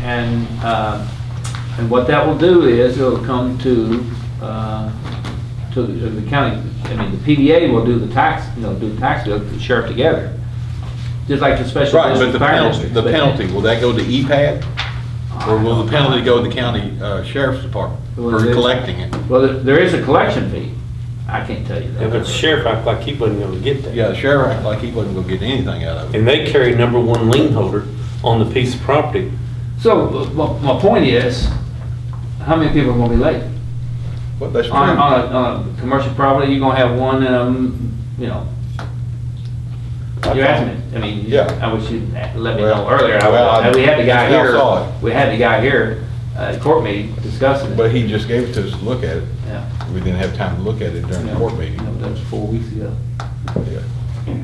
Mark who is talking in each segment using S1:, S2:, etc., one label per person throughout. S1: And, uh, and what that will do is it'll come to, uh, to the to the county, I mean, the PDA will do the tax, you know, do the tax bill, the sheriff together. Just like the special.
S2: Right, but
S1: district
S2: the
S1: fire
S2: penalty,
S1: districts,
S2: the
S1: but-
S2: penalty, will that go to E EPAD? Or will the penalty go to the county uh, sheriff's department for
S1: Well, they-
S2: collecting it?
S1: Well, there- there is a collection fee. I can't tell you that.
S3: If it's sheriff, act like he wasn't gonna get that.
S2: Yeah, the sheriff acted like he wasn't gonna get anything out of it.
S3: And they carry number one lien holder on the piece of property.
S1: So, uh, my, my point is, how many people are gonna be late?
S2: Well, that's true.
S1: On, a- on a, on a commercial property, you're gonna have one, um, you know, you're asking, me. I mean,
S2: Yeah.
S1: I wish you'd let me
S2: Well,
S1: know earlier. I-
S2: well, I-
S1: We had the guy
S2: I saw it.
S1: here, we had the guy here, uh, at court meeting discussing it.
S2: But he just gave it to us to look at it.
S1: Yeah.
S2: We didn't have time to look at it during the court meeting.
S1: That was four weeks ago.
S2: Yeah.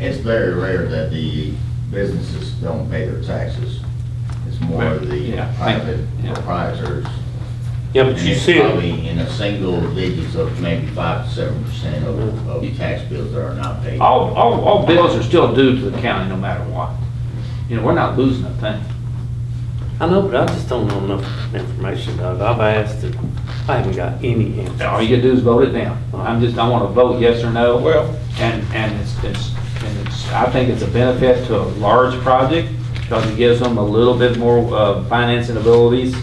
S4: It's very rare that the businesses don't pay their taxes. It's more of the
S1: Yeah.
S4: private
S1: Yeah.
S4: proprietors.
S3: Yeah, but
S4: And
S3: you
S4: it's
S3: see it,
S4: Probably in a single digits of maybe five to seven percent of, of tax bills that are not paid.
S1: All, all, all bills are still due to the county no matter what. You know, we're not losing a thing.
S3: I know, but I just don't know enough information, Doug. I've asked it, I haven't got any
S1: All you
S3: answers.
S1: gotta do is vote it down. I'm just, I wanna vote yes or no.
S2: Well-
S1: And, and it's, it's, and it's, I think it's a benefit to a large project, because it gives them a little bit more, uh, financing abilities.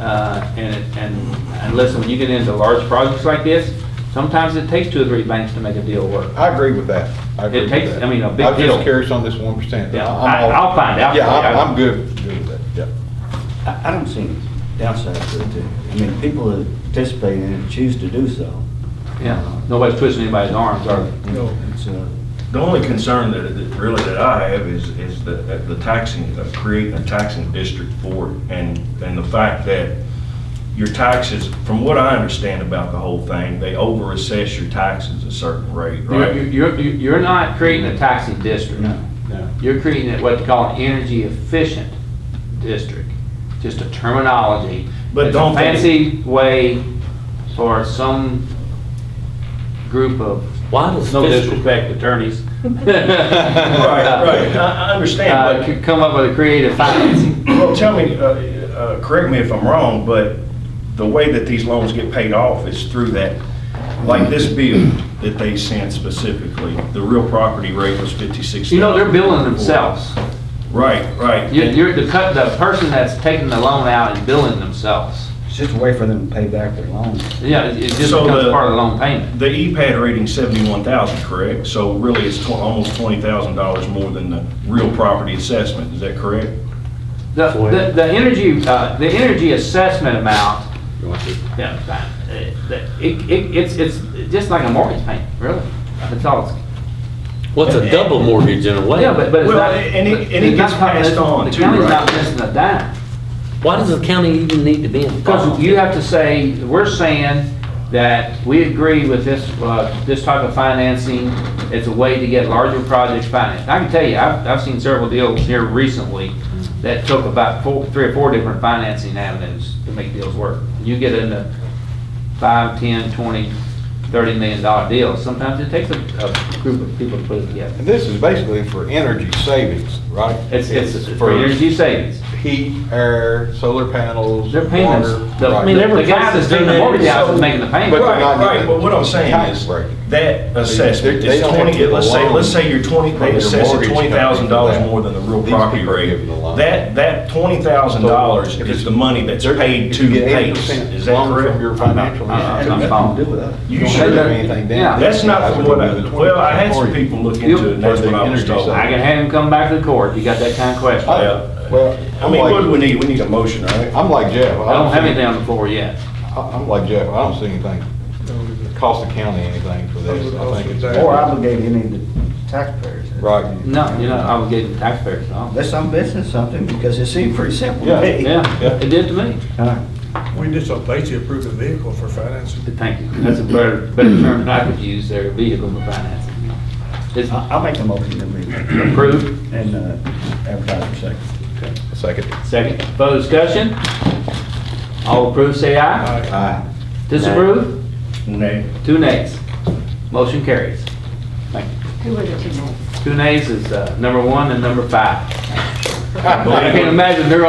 S1: Uh, and, it- and, and listen, when you get into large projects like this, sometimes it takes two or three banks to make a deal work.
S2: I agree with that. I agree
S1: It
S2: with
S1: takes-
S2: that.
S1: I mean, a big
S2: I'm
S1: deal.
S2: just curious on this one percent.
S1: Yeah, I- I'll find out.
S2: Yeah, I'm, I'm good, good with that, yeah.
S5: I I don't see any downside to it, too. I mean, people that participate in it choose to do so.
S1: Yeah, nobody's twisting anybody's arms, or,
S5: It's, uh,
S6: The only concern that, that really that I have is, is the, the taxing, uh, creating a taxing district for it. And, and the fact that your taxes, from what I understand about the whole thing, they over assess your taxes a certain rate,
S1: you're,
S6: right?
S1: you're, you're not creating a taxing district. You're creating a- what they call an energy efficient district, just a terminology.
S6: But
S1: It's a
S6: don't they-
S1: Fancy way for some group of,
S3: Why does
S1: no
S3: fiscal,
S1: disrespect, attorneys.
S6: Right, right, I, I
S1: Uh,
S6: understand,
S1: could come up with a creative financing.
S6: but, well, tell me, uh, uh, correct me if I'm wrong, but the way that these loans get paid off is through that, like this bill that they sent specifically, the real property rate was fifty-six thousand.
S1: You know, they're billing themselves.
S6: Right, right.
S1: You're, you're the cut, the person that's taking the loan out and billing themselves.
S5: It's just a way for them to pay back their loans.
S1: Yeah, it it just
S6: So
S1: becomes
S6: the-
S1: part of the loan payment.
S6: The EPAD rating's seventy-one thousand, correct? So really, it's tw- almost twenty thousand dollars more than the real property assessment, is that correct?
S1: The,
S3: Boy.
S1: the, the energy, uh, the energy assessment amount Yeah, that- that- it, it, it's, it's just like a mortgage payment, really. That's all it's.
S3: what's a double mortgage in a way?
S1: Yeah, but, but it's
S6: Well,
S1: not.
S6: and it- and it
S1: it's not
S6: gets passed
S1: coming-
S6: on too,
S1: The county's not
S6: right?
S1: missing a dime.
S3: Why does the county even need to be
S1: Because
S3: involved?
S1: you have to say, we're saying that we agree with this, uh, this type of financing as a way to get larger projects financed. I can tell you, I've, I've seen several deals here recently that took about four, three or four different financing avenues to make deals work. You get into five, ten, twenty, thirty million dollar deals, sometimes it takes a, a group of people to put it together.
S2: And this is basically for energy savings, right?
S1: It's, it's for energy savings.
S2: Heat, air, solar panels,
S1: Their
S2: water.
S1: payments, the,
S2: right.
S1: I mean, the guy that's doing the mortgage house is
S6: So-
S1: making the payment.
S2: But they're
S6: Right,
S2: not
S6: right,
S2: getting
S6: but what I'm saying
S2: tax
S6: is,
S2: break.
S6: that
S2: They-
S6: assessment
S2: they
S6: is
S2: don't have to
S6: twenty,
S2: give a
S6: let's say,
S2: loan
S6: let's say you're twenty,
S2: from
S6: they
S2: your
S6: assess
S2: mortgage
S6: it
S2: company
S6: twenty
S2: for
S6: thousand dollars
S2: that.
S6: more than the real
S2: These
S6: property
S2: people are
S6: rate.
S2: given the loan.
S6: That, that twenty thousand dollars is the money that's
S2: They're-
S6: paid
S2: if
S6: to
S2: you get
S6: Pace,
S2: 8%
S6: is that
S2: loan From your
S6: correct?
S2: financial.
S1: Uh-uh.
S2: institution,
S1: I'm
S5: Nothing
S1: following.
S5: to do with us.
S2: You
S6: You
S2: don't
S6: should-
S2: have anything down.
S6: That's not from what I,
S2: That's
S6: well, I had some
S2: Or you-
S6: people look into it, and that's what I was told.
S1: I can have him come back to the court, you got that kind of question.
S2: Oh,
S1: I
S6: Yeah.
S2: Well,
S6: I mean, what do we need? We need a motion, right?
S2: I'm like Jeff. I
S1: don't have
S2: see-
S1: anything on the floor yet.
S2: I- I'm like Jeff, I don't see anything, cost the county anything for this, I think it's.
S5: Or obligate any of the taxpayers.
S2: Right.
S1: No, you're not obligating taxpayers, no.
S5: Unless I'm missing something, because it seemed pretty simple
S2: Yeah.
S5: to me.
S1: Yeah, it did to me.
S5: All right.
S7: We just basically approved a vehicle for financing.
S1: Thank you, that's a better, better term than I could use there, vehicle for financing. It's
S5: I- I'll make the motion that we,
S1: approved,
S5: and uh, advertise for second.
S2: Second.
S1: second, further discussion? All approved, say aye.
S5: Aye.
S1: Disapprove?
S5: Nay.
S1: Two nays. Motion carries. Thank you.
S8: Who were the two men?
S1: Two nays is uh, number one and number five. I
S6: Believe
S1: can't
S6: it.
S1: imagine they're